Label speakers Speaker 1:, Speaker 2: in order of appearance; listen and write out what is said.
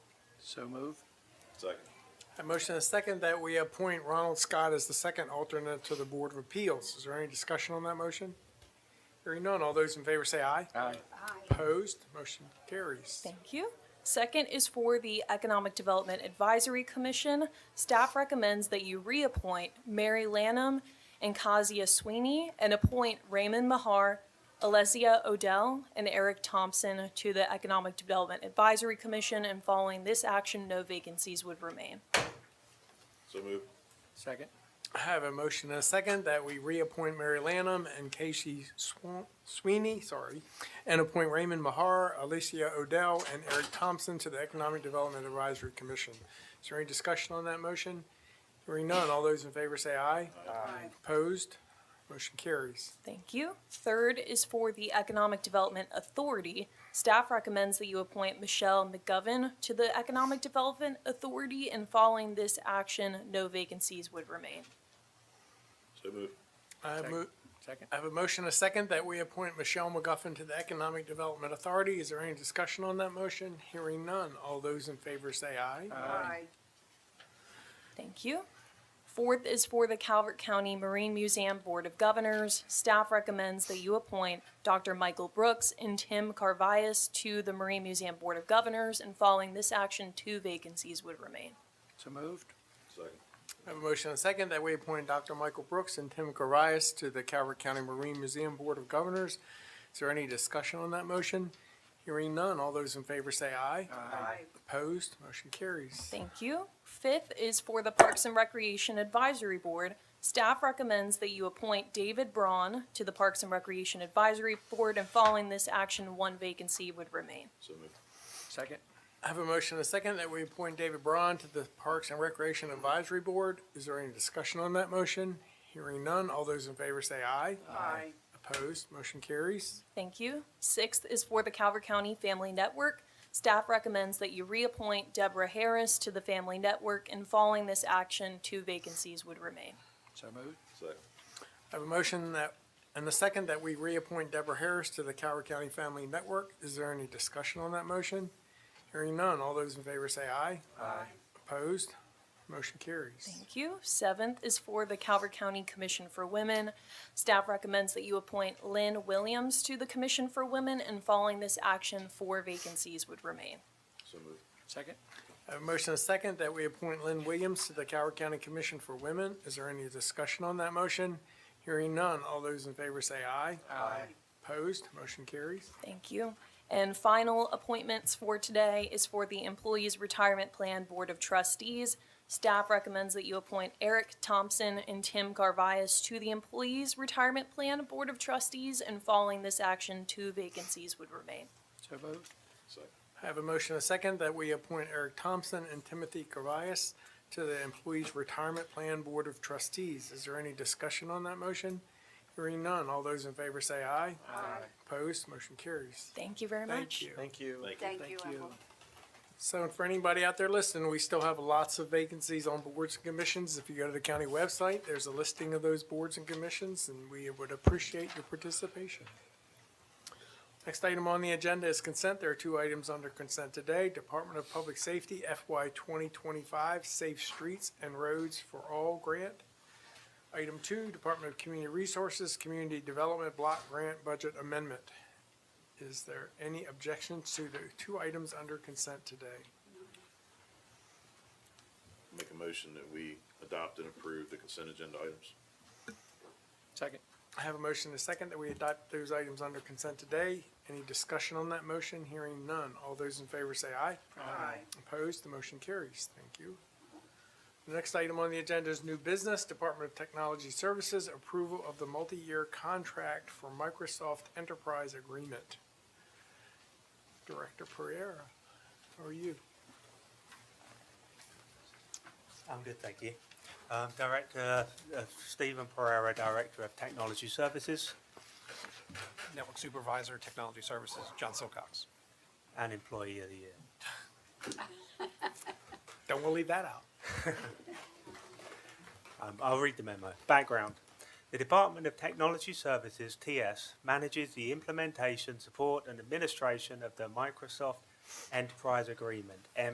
Speaker 1: So move.
Speaker 2: Second.
Speaker 3: A motion and a second that we appoint Ronald Scott as the second alternate to the Board of Appeals. Is there any discussion on that motion? Hearing none, all those in favor say aye.
Speaker 1: Aye.
Speaker 3: Opposed, motion carries.
Speaker 4: Thank you. Second is for the Economic Development Advisory Commission. Staff recommends that you reappoint Mary Lanham and Kazia Sweeney and appoint Raymond Mahar, Alessia Odell, and Eric Thompson to the Economic Development Advisory Commission. And following this action, no vacancies would remain.
Speaker 2: So move.
Speaker 1: Second.
Speaker 3: I have a motion and a second that we reappoint Mary Lanham and Casey Swan- Sweeney, sorry, and appoint Raymond Mahar, Alicia Odell, and Eric Thompson to the Economic Development Advisory Commission. Is there any discussion on that motion? Hearing none, all those in favor say aye. Aye. Opposed, motion carries.
Speaker 4: Thank you. Third is for the Economic Development Authority. Staff recommends that you appoint Michelle McGovern to the Economic Development Authority, and following this action, no vacancies would remain.
Speaker 2: So move.
Speaker 3: I have mo-
Speaker 1: Second.
Speaker 3: I have a motion, and a second, that we appoint Michelle McGuffin to the Economic Development Authority. Is there any discussion on that motion? Hearing none. All those in favor say aye.
Speaker 5: Aye.
Speaker 4: Thank you. Fourth is for the Calvert County Marine Museum Board of Governors. Staff recommends that you appoint Dr. Michael Brooks and Tim Carvias to the Marine Museum Board of Governors, and following this action, two vacancies would remain.
Speaker 1: So moved.
Speaker 2: Second.
Speaker 3: I have a motion, and a second, that we appoint Dr. Michael Brooks and Tim Corias to the Calvert County Marine Museum Board of Governors. Is there any discussion on that motion? Hearing none. All those in favor say aye.
Speaker 5: Aye.
Speaker 3: Opposed, motion carries.
Speaker 4: Thank you. Fifth is for the Parks and Recreation Advisory Board. Staff recommends that you appoint David Braun to the Parks and Recreation Advisory Board, and following this action, one vacancy would remain.
Speaker 2: So move.
Speaker 1: Second.
Speaker 3: I have a motion, and a second, that we appoint David Braun to the Parks and Recreation Advisory Board. Is there any discussion on that motion? Hearing none. All those in favor say aye.
Speaker 5: Aye.
Speaker 3: Opposed, motion carries.
Speaker 4: Thank you. Sixth is for the Calvert County Family Network. Staff recommends that you reappoint Deborah Harris to the Family Network, and following this action, two vacancies would remain.
Speaker 1: So moved.
Speaker 2: Second.
Speaker 3: I have a motion that, and the second, that we reappoint Deborah Harris to the Coward County Family Network. Is there any discussion on that motion? Hearing none, all those in favor say aye.
Speaker 5: Aye.
Speaker 3: Opposed? Motion carries.
Speaker 4: Thank you. Seventh is for the Calvert County Commission for Women. Staff recommends that you appoint Lynn Williams to the Commission for Women, and following this action, four vacancies would remain.
Speaker 2: So move.
Speaker 1: Second.
Speaker 3: I have a motion and a second that we appoint Lynn Williams to the Coward County Commission for Women. Is there any discussion on that motion? Hearing none, all those in favor say aye.
Speaker 5: Aye.
Speaker 3: Opposed? Motion carries.
Speaker 4: Thank you. And final appointments for today is for the Employees Retirement Plan Board of Trustees. Staff recommends that you appoint Eric Thompson and Tim Garvias to the Employees Retirement Plan Board of Trustees, and following this action, two vacancies would remain.
Speaker 1: So moved.
Speaker 2: Second.
Speaker 3: I have a motion and a second that we appoint Eric Thompson and Timothy Carvias to the Employees Retirement Plan Board of Trustees. Is there any discussion on that motion? Hearing none, all those in favor say aye.
Speaker 5: Aye.
Speaker 3: Opposed, motion carries.
Speaker 4: Thank you very
Speaker 3: Thank
Speaker 4: much.
Speaker 3: you.
Speaker 1: Thank you.
Speaker 2: Thank
Speaker 5: Thank you, Emma.
Speaker 3: So for anybody out there listening, we still have lots of vacancies on boards and commissions. If you go to the county website, there's a listing of those boards and commissions, and we would appreciate your participation. Next item on the agenda is consent. There are two items under consent today. Department of Public Safety FY 2025 Safe Streets and Roads for All Grant. Item two, Department of Community Resources Community Development Block Grant Budget Amendment. Is there any objection to the two items under consent today?
Speaker 2: Make a motion that we adopt and approve the consent agenda items.
Speaker 1: Second.
Speaker 3: I have a motion and a second that we adopt those items under consent today. Any discussion on that motion? Hearing none. All those in favor say aye.
Speaker 5: Aye.
Speaker 3: Opposed? The motion carries. Thank you. The next item on the agenda is new business, Department of Technology Services, approval of the multi-year contract for Microsoft Enterprise Agreement. Director Pereira, how are you?
Speaker 6: I'm good, thank you. Um, Director uh, Stephen Pereira, Director of Technology Services
Speaker 7: Network Supervisor, Technology Services, John Silcox.
Speaker 6: and Employee of the Year.
Speaker 3: Don't want to leave that out.
Speaker 6: Um, I'll read the memo. Background. The Department of Technology Services, TS, manages the implementation, support, and administration of the Microsoft Enterprise Agreement,